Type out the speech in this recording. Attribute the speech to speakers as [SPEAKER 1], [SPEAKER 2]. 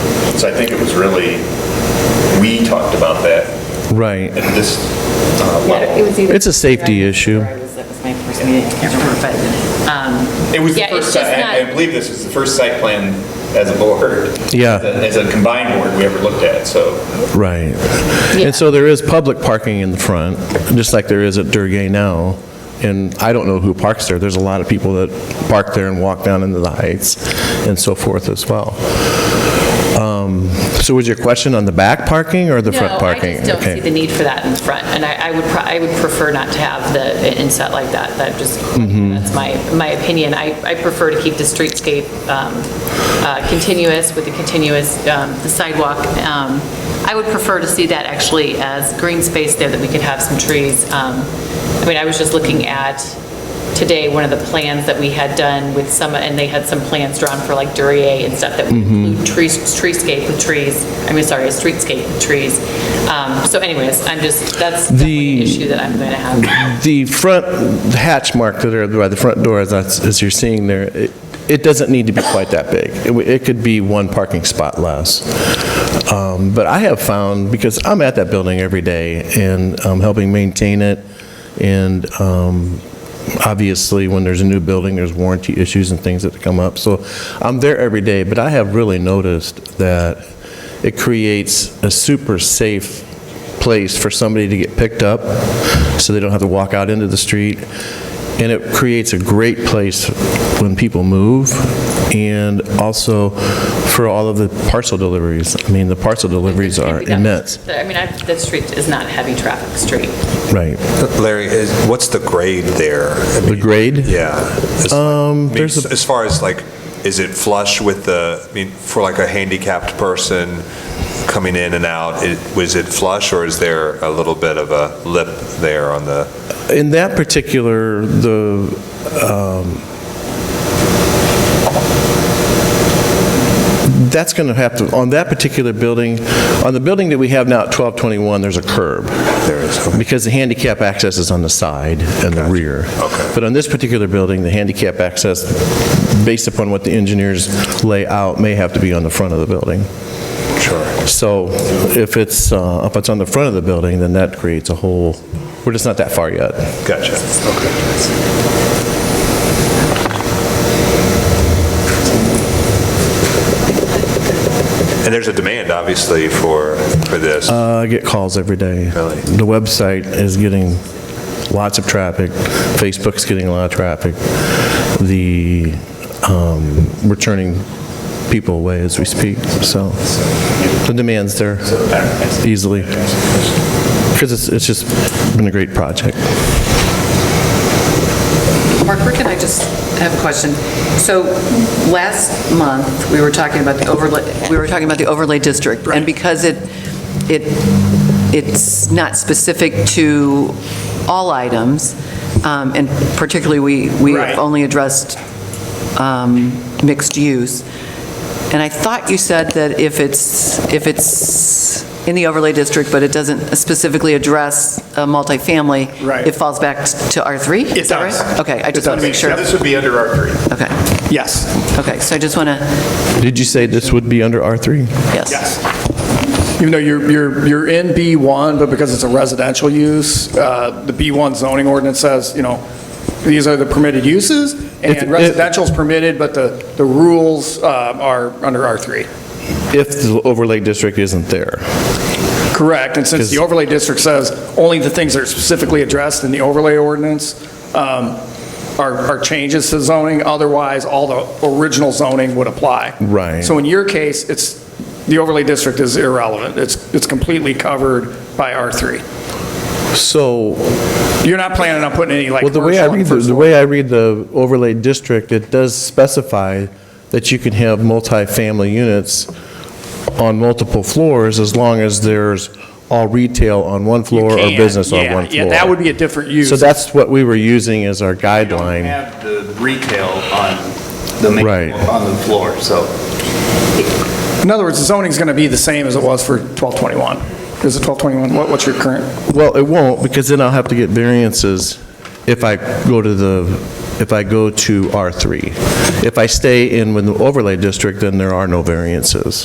[SPEAKER 1] So I think it was really, we talked about that
[SPEAKER 2] Right.
[SPEAKER 1] at this uh, level.
[SPEAKER 2] It's a safety issue.
[SPEAKER 3] That was my first meeting, I can't remember, but, um,
[SPEAKER 1] It was the
[SPEAKER 3] Yeah, it's
[SPEAKER 1] first, si-
[SPEAKER 3] just
[SPEAKER 1] I I
[SPEAKER 3] not-
[SPEAKER 1] believe this is the first site plan as a board.
[SPEAKER 2] Yeah.
[SPEAKER 1] As a combined board we ever looked at, so.
[SPEAKER 2] Right. And so there is public parking in the front, just like there is at Durgay now. And I don't know who parks there. There's a lot of people that park there and walk down into the heights and so forth as well. Um, So was your question on the back parking or the front parking?
[SPEAKER 3] No, I just don't
[SPEAKER 2] Okay.
[SPEAKER 3] see the need for that in the front, and I I would, pro- I would prefer not to have the, an inset like that, that just,
[SPEAKER 2] Mm-hmm.
[SPEAKER 3] that's my, my opinion. I, I prefer to keep the streetscape um, uh, continuous with the continuous, um, the sidewalk. Um, I would prefer to see that actually as green space there, that we could have some trees. Um, I mean, I was just looking at, today, one of the plans that we had done with some, and they had some plans drawn for like Duryea and stuff that would
[SPEAKER 2] Mm-hmm.
[SPEAKER 3] include trees, treescape with trees, I mean, sorry, a streetscape with trees. Um, So anyways, I'm just, that's definitely an
[SPEAKER 2] The-
[SPEAKER 3] issue that I'm going to have.
[SPEAKER 2] The front hatch mark that are by the front door, that's- as you're seeing there, it- it doesn't need to be quite that big. It w- It could be one parking spot less. Um, But I have found, because I'm at that building every day and um, helping maintain it, and um, obviously, when there's a new building, there's warranty issues and things that come up. So I'm there every day, but I have really noticed that it creates a super safe place for somebody to get picked up, so they don't have to walk out into the street. And it creates a great place when people move, and also for all of the parcel deliveries. I mean, the parcel deliveries are immense.
[SPEAKER 3] I mean, I- that street is not a heavy traffic street.
[SPEAKER 2] Right.
[SPEAKER 4] Larry, is- what's the grade there? I
[SPEAKER 2] The
[SPEAKER 4] mean,
[SPEAKER 2] grade?
[SPEAKER 4] Yeah. It's- I mean,
[SPEAKER 2] Um, there's a-
[SPEAKER 4] As far as like, is it flush with the, I mean, for like a handicapped person coming in and out, it- was it flush or is there a little bit of a lip there on the?
[SPEAKER 2] In that particular, the, um, that's going to have to, on that particular building, on the building that we have now at 1221, there's a curb.
[SPEAKER 4] There is, okay.
[SPEAKER 2] Because the handicap access is on the side and the rear.
[SPEAKER 4] okay.
[SPEAKER 2] But on this particular building, the handicap access, based upon what the engineers lay out, may have to be on the front of the building.
[SPEAKER 4] Sure.
[SPEAKER 2] So if it's, uh, if it's on the front of the building, then that creates a whole, we're just not that far yet.
[SPEAKER 4] Gotcha. Okay. And there's a demand, obviously, for, for this.
[SPEAKER 2] Uh, I get calls every day.
[SPEAKER 4] Really?
[SPEAKER 2] The website is getting lots of traffic. Facebook's getting a lot of traffic. The, um, we're turning people away as we speak, so the demand's there easily. Because it's, it's just been a great project.
[SPEAKER 5] Mark, where can I just have a question? So last month, we were talking about the overlay, we were talking about the overlay district. And because it, it, it's not specific to all items, um, and particularly, we, we
[SPEAKER 1] Right.
[SPEAKER 5] only addressed um, mixed use. And I thought you said that if it's, if it's in the overlay district, but it doesn't specifically address a multifamily.
[SPEAKER 6] Right.
[SPEAKER 5] It falls back to R3? Is
[SPEAKER 6] It
[SPEAKER 5] that right?
[SPEAKER 6] does.
[SPEAKER 5] Okay, I
[SPEAKER 6] It
[SPEAKER 5] just want
[SPEAKER 6] does.
[SPEAKER 5] to make sure.
[SPEAKER 1] Yeah, This would be under R3.
[SPEAKER 5] Okay,
[SPEAKER 6] Yes,
[SPEAKER 5] okay, so I just want to,
[SPEAKER 2] Did you say this would be under R3?
[SPEAKER 5] yes.
[SPEAKER 6] yes. Even though you're, you're, you're in B1, but because it's a residential use, uh, the B1 zoning ordinance says, you know, these are the permitted uses,
[SPEAKER 2] If- if-
[SPEAKER 6] and residential's permitted, but the, the rules uh, are under R3.
[SPEAKER 2] If the overlay district isn't there.
[SPEAKER 6] Correct, and since the overlay district says only the things that are specifically addressed in the overlay ordinance um, are are changes to zoning, otherwise, all the original zoning would apply.
[SPEAKER 2] Right.
[SPEAKER 6] So in your case, it's, the overlay district is irrelevant. It's it's completely covered by R3.
[SPEAKER 2] So
[SPEAKER 6] You're not planning on putting any, like,
[SPEAKER 2] Well, the way I
[SPEAKER 6] commercial on
[SPEAKER 2] read, the-
[SPEAKER 6] first
[SPEAKER 2] the way I read the overlay district, it does specify that you can have multifamily units on multiple floors as long as there's all retail on one floor or
[SPEAKER 6] can,
[SPEAKER 2] business on
[SPEAKER 6] yeah,
[SPEAKER 2] one floor.
[SPEAKER 6] yeah, that would be a different use.
[SPEAKER 2] So that's what we were using as our
[SPEAKER 7] You don't
[SPEAKER 2] guideline.
[SPEAKER 7] have the retail on the main,
[SPEAKER 2] Right.
[SPEAKER 7] on the floor, so.
[SPEAKER 6] floor. In other words, the zoning's going to be the same as it was for 1221. Is it 1221? What- What's your current?
[SPEAKER 2] Well, it won't, because then I'll have to get variances if I go to the, if I go to R3. If I stay in with the overlay district, then there are no variances.